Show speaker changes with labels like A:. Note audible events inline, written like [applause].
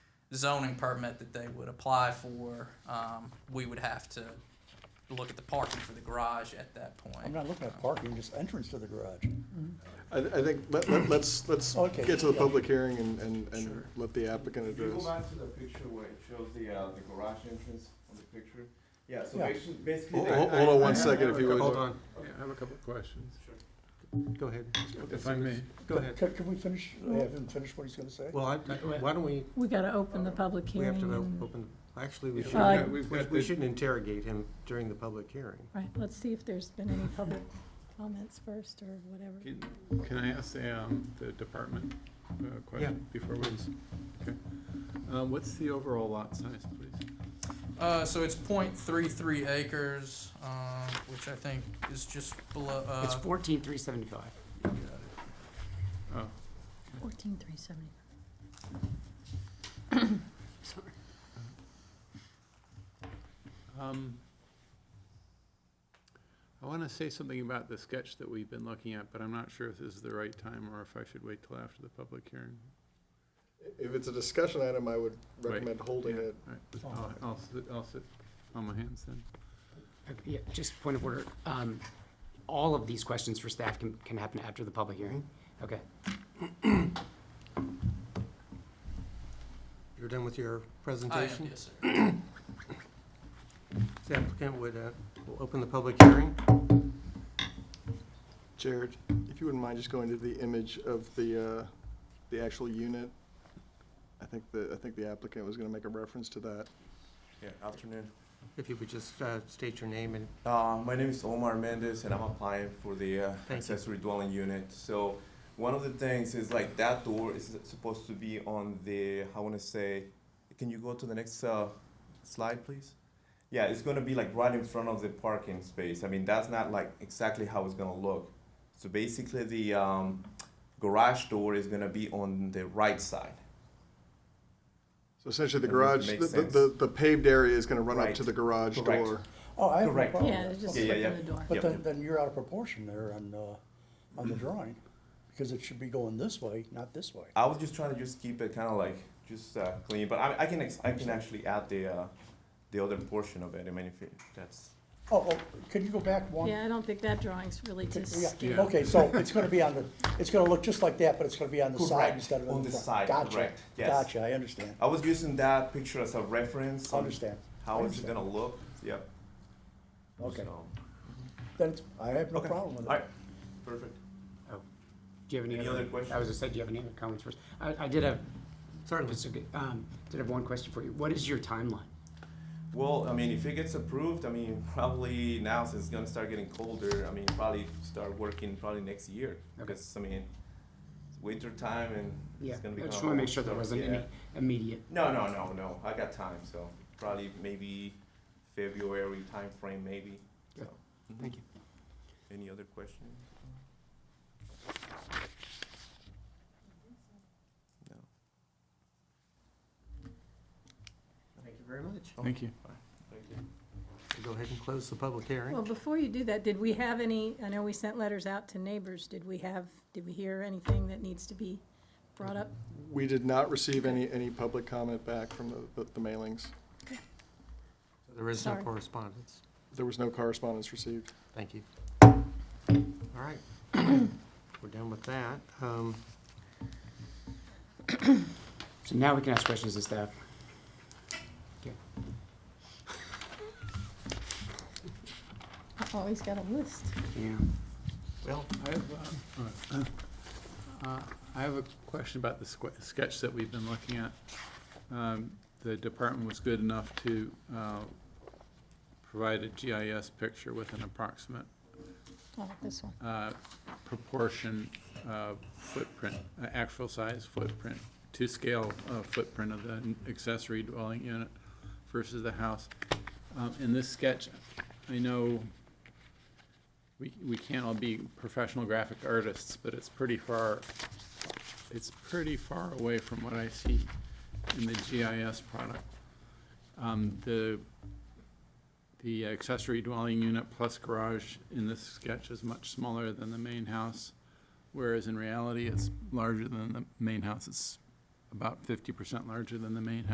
A: zoning permit that they would apply for, um, we would have to look at the parking for the garage at that
B: I'm
A: point.
B: not looking at parking, just entrance to the garage.
C: I, I think, let, let- let's, let's
B: [clears throat] Okay,
C: get to the
B: yeah.
C: public hearing and, and, and
A: Sure.
C: let the applicant
D: If you go
C: address.
D: back to the picture where it shows the, uh, the garage entrance on the picture, yeah, so
B: Yeah.
D: basically, basically.
C: Hold,
D: the-
C: hold- hold on one second if you would.
E: Hold on, I have a couple of questions. Go ahead, if I may, go ahead.
B: Can, can we finish, have him finish what he's gonna say?
E: Well, I, I- why don't we,
F: We gotta open the public
E: we
F: hearing.
E: have to
F: and-
E: open, actually, we
F: Yeah,
E: shouldn't,
F: we've got-
E: we- we shouldn't interrogate him during the public hearing.
F: Right, let's see if there's been any public comments first or whatever.
G: Can I ask the, um, the department uh, question before we, okay. Um, what's the overall lot size, please?
A: Uh, so it's point three three acres, um, which I think is just below,
H: It's
A: uh,
H: fourteen three seventy-five.
G: Oh,
F: Fourteen three seventy.
H: Sorry.
G: um, I wanna say something about the sketch that we've been looking at, but I'm not sure if this is the right time or if I should wait till after the public hearing.
C: If it's a discussion item, I would recommend holding
G: Yeah,
C: it.
G: all right. I'll, I'll sit, I'll sit on my hands then.
H: Uh, Yeah, just point of order. Um, all of these questions for staff can, can happen after the public hearing. Okay.
E: You're done with
A: I
E: your
A: am,
E: presentation?
A: yes, sir.
E: The applicant would, uh, will open the public hearing.
C: Jared, if you wouldn't mind just going to the image of the, uh, the actual unit. I think the, I think the applicant was gonna make a reference to that.
D: Yeah, afternoon.
E: If you would just, uh, state your name and
D: Uh, my name is Omar Mendez and I'm applying for the uh,
E: you.
D: accessory dwelling unit. So one of the things is like that door is supposed to be on the, I want to say, can you go to the next uh, slide, please? Yeah, it's going to be like right in front of the parking space. I mean, that's not like exactly how it's going to look. So basically the um, garage door is going to be on the right side.
C: So essentially the
D: That
C: garage,
D: doesn't make
C: the, the-
D: sense.
C: the, the paved area is gonna run up
D: Right.
C: to the garage
D: Correct.
C: door.
B: Oh, I have no
D: Correct.
B: problem
F: Yeah,
B: with
F: it's
B: that.
F: just
D: Yeah, yeah,
F: open
D: yeah.
F: the door.
B: But
D: Yep. Mm-hmm.
B: then, then you're out of proportion there on, uh, on the drawing, because it should be going this way, not this way.
D: I was just trying to just keep it kind of like just uh, clean, but I, I can ex- I can actually add the uh, the other portion of it. I mean, if it, that's
B: Oh, oh, can you go back one?
F: Yeah, I don't think that drawing's really
B: Yeah,
F: to scale.
B: Okay, so it's gonna be on the, it's gonna look just like that, but it's gonna be on the side
D: Correct,
B: instead of
D: on
B: on the
D: the
B: front.
D: side,
B: Gotcha,
D: correct, yes.
B: Gotcha, I understand,
D: I was using that picture as a
B: I
D: reference. on
B: understand,
D: Um, How it's
B: Understand.
D: gonna look? Yep.
B: okay.
D: So,
B: Then it's, I have no
D: okay.
B: problem with
D: All
B: it.
D: right. Perfect.
H: Oh, do you have any
D: Any
H: other?
D: other questions?
H: I was just saying, do you have any other comments first? I, I did have, sorry, if it's okay, um, did have one question for you. What is your timeline?
D: Well, I mean, if it gets approved, I mean, probably now since it's gonna start getting colder, I mean, probably start working probably next year.
H: Okay.
D: Because I mean, it's winter time and
H: Yeah,
D: it's gonna be.
H: I just
D: kinda
H: wanna make
D: hot,
H: sure there
D: so,
H: wasn't
D: yeah.
H: any immediate,
D: No, no, no, no. I got time, so probably maybe February timeframe, maybe. So,
H: thank you.
D: any other questions? No.
E: Thank you very much.
G: Thank you.
D: Thank you.
E: Oh, Go ahead and close the public hearing.
F: Well, before you do that, did we have any, I know we sent letters out to neighbors, did we have, did we hear anything that needs to be brought up?
C: We did not receive any, any public comment back from the, the- the mailings.
E: There is no
F: Sorry.
E: correspondence.
C: There was no correspondence received.
F: [coughs]
E: Thank you. All right. We're done with that. Um,
H: So now we can ask questions to staff.
F: Oh, he's got a list.
H: Yeah.
E: Well,
G: I have, uh, all right. Uh, I have a question about the squ- sketch that we've been looking at. Um, The department was good enough to uh, provide a GIS picture with an approximate
F: Oh, this one.
G: uh, proportion, uh, footprint, uh, actual size footprint, to scale uh, footprint of the accessory dwelling unit versus the house. Um, In this sketch, I know we, we can't all be professional graphic artists, but it's pretty far, it's pretty far away from what I see in the GIS product. Um, The the accessory dwelling unit plus garage in this sketch is much smaller than the main house, whereas in reality, it's larger than the main house. It's about fifty percent larger than the main house.